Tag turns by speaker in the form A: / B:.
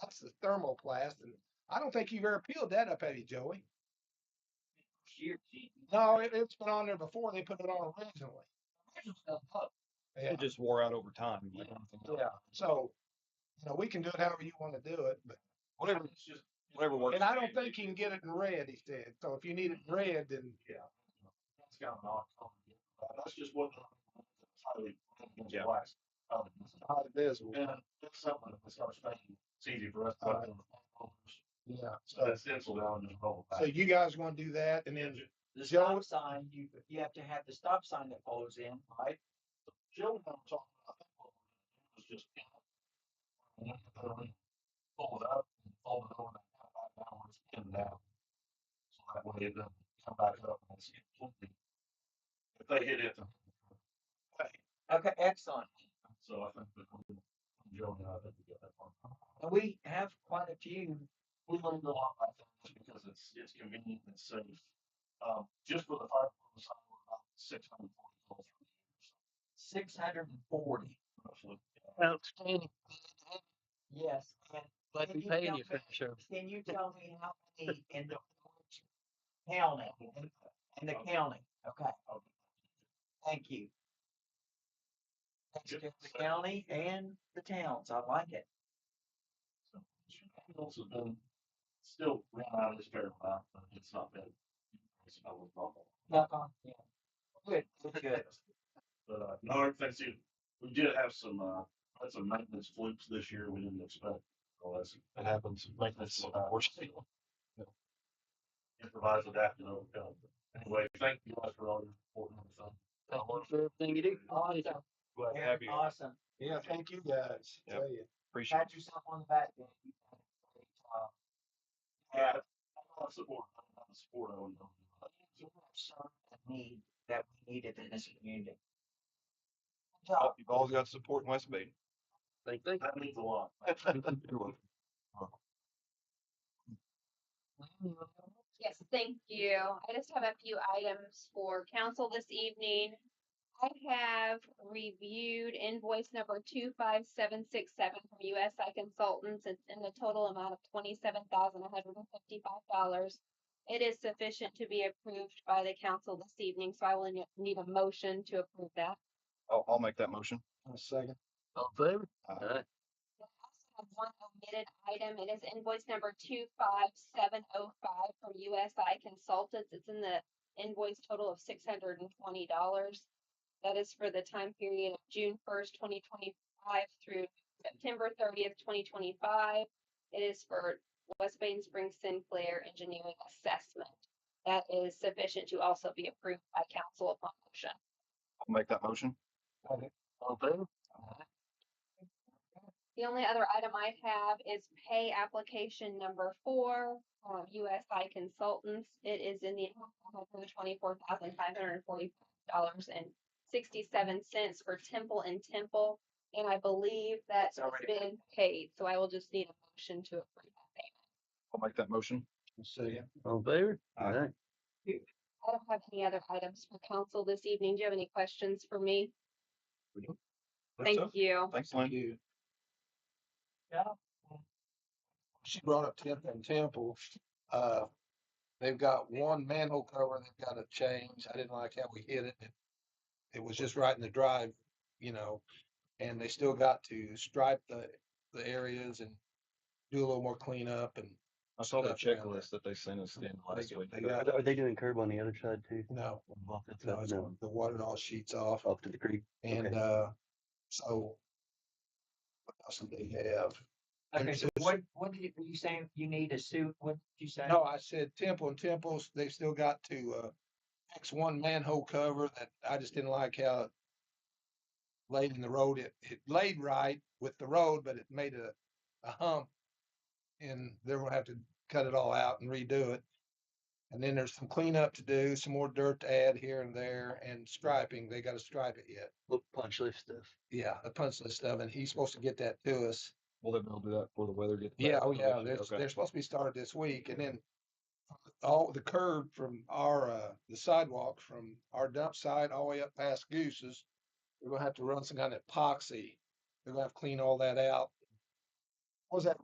A: That's the thermoplast, and I don't think you've ever peeled that up, have you, Joey?
B: She or she.
A: No, it, it's been on there before they put it on originally. Yeah,
C: It just wore out over time. like,
A: yeah. So, you know, we can do it however you want to do it, but
C: Whatever,
B: It's just-
C: whatever works.
A: and I don't think you can get it in red. He said. So if you need it in red, then yeah.
B: That's got an odd color. Uh, That's just what. highly-
C: Yeah.
B: black. Um, it's not-
A: Not visible.
B: And that's something that was our special. It's easy for us. to put in the-
A: Yeah.
B: So that stencil down and roll
A: So
B: back.
A: you guys want to do that, and then
D: The
A: Joe-
D: stop sign, you, you have to have the stop sign that follows in, right?
B: Joe and I were talking about that. what we were doing was just. you know, when we put it in, Fold it up and fold it over and come back downwards, pin it down. So that way it doesn't come back up and it's completely. If they hit it.
D: Okay, excellent.
B: So I think that we- Joe and I think we got that one.
D: And we have quite a few.
B: We learned a lot about that just because it's, it's convenient and it's safe. Um, just for the fire department side, we're about six hundred forty calls per year.
D: Six hundred and forty.
B: roughly.
E: Outstanding.
D: Yes. and
E: Like
D: can
E: we
D: you
E: pay
D: tell
E: anything,
D: me-
E: sure.
D: Can you tell me how many in the Orange county, in in the county? Okay, thank you. That's
B: Yep.
D: just the county and the towns. I like it.
B: So, Chicago's have been, still ran out of his fair amount, but it's not been. It's not a problem.
D: Knock on, yeah. Good, good, good.
B: But, uh, no, other things too. we did have some, uh, had some maintenance flips this year we didn't expect. Well, that's, that happens, maintenance, unfortunately. Improvise, adapt, and overcome. Anyway, thank you guys for all your support and everything.
E: Thank you for everything you do.
D: Awesome.
C: Glad to
D: Eric,
C: have you.
D: Awesome.
A: yeah, thank you guys.
C: Yep.
A: Tell you.
C: Appreciate it.
D: Pat yourself on the back. Dan. You did a great job.
B: Yeah, I love support, I love support, I would love
D: You have served the need that we needed in this community. Good job.
C: You've always got support in West Bay.
E: Thank, thank.
B: to. That means a lot.
C: You're welcome.
F: Yes, thank you. I just have a few items for council this evening. I have reviewed invoice number two five seven six seven from USI Consultants It's in the total amount of twenty-seven thousand one hundred and fifty-five dollars. It is sufficient to be approved by the council this evening, so I will ne- need a motion to approve that.
C: I'll, I'll make that motion.
A: In a second.
E: All in favor?
C: Aye.
E: Aye.
F: We also have one omitted item. It is invoice number two five seven oh five from USI Consultants. It's in the invoice total of six hundred and twenty dollars. That is for the time period of June first, twenty twenty-five through September thirtieth, twenty twenty-five. It is for West Bain Springs Sinclair Engineering Assessment. That is sufficient to also be approved by council upon motion.
C: I'll make that motion.
E: All in favor?
F: The only other item I have is pay application number four, um, USI Consultants. It is in the twenty-four thousand five hundred and forty dollars and sixty-seven cents for Temple and Temple. And I believe that's
D: It's already been-
F: been paid, so I will just need a motion to approve that payment.
C: I'll make that motion.
A: In a second.
E: All in favor?
C: Aye.
E: Aye.
F: I don't have any other items for council this evening. Do you have any questions for me? Thank you.
C: Thanks,
A: Thank
C: Lynn.
A: you.
D: Yeah.
A: She brought up Temple and Temple. Uh, they've got one manhole cover they've got to change. I didn't like how we hit it. It was just right in the drive, you know, and they still got to stripe the the areas and do a little more cleanup and
C: I saw the
A: Stuff down there.
C: checklist that they sent us in
A: they
C: last
A: got-
C: week.
A: they
G: Are
A: got-
G: they- Are they doing curb on the other side too?
A: No, no,
G: That's
A: it's-
G: no,
A: the water all sheets off.
G: off to the creek.
A: And
G: Oh, Okay.
A: uh, so what else do they have? And
D: Okay,
A: it's
D: so
A: just-
D: what, what did you, were you saying you need a suit? What did you say?
A: No, I said Temple and Temples, they've still got to uh, fix one manhole cover that I just didn't like how it laid in the road. It, it laid right with the road, but it made a, a hump. And they're gonna have to cut it all out and redo it. And then there's some cleanup to do, some more dirt to add here and there and striping. They gotta stripe it yet.
G: Look, punch list stuff.
A: Yeah, the punch list stuff, and he's supposed to get that to us.
C: Will they be able to do that before the weather gets?
A: Yeah,
C: bad?
A: oh yeah,
C: Okay.
A: they're, they're supposed to be started this week and then all the curb from our, uh, the sidewalk from our dump site all the way up past Goose's. We're gonna have to run some kind of epoxy. They're gonna have to clean all that out. What was that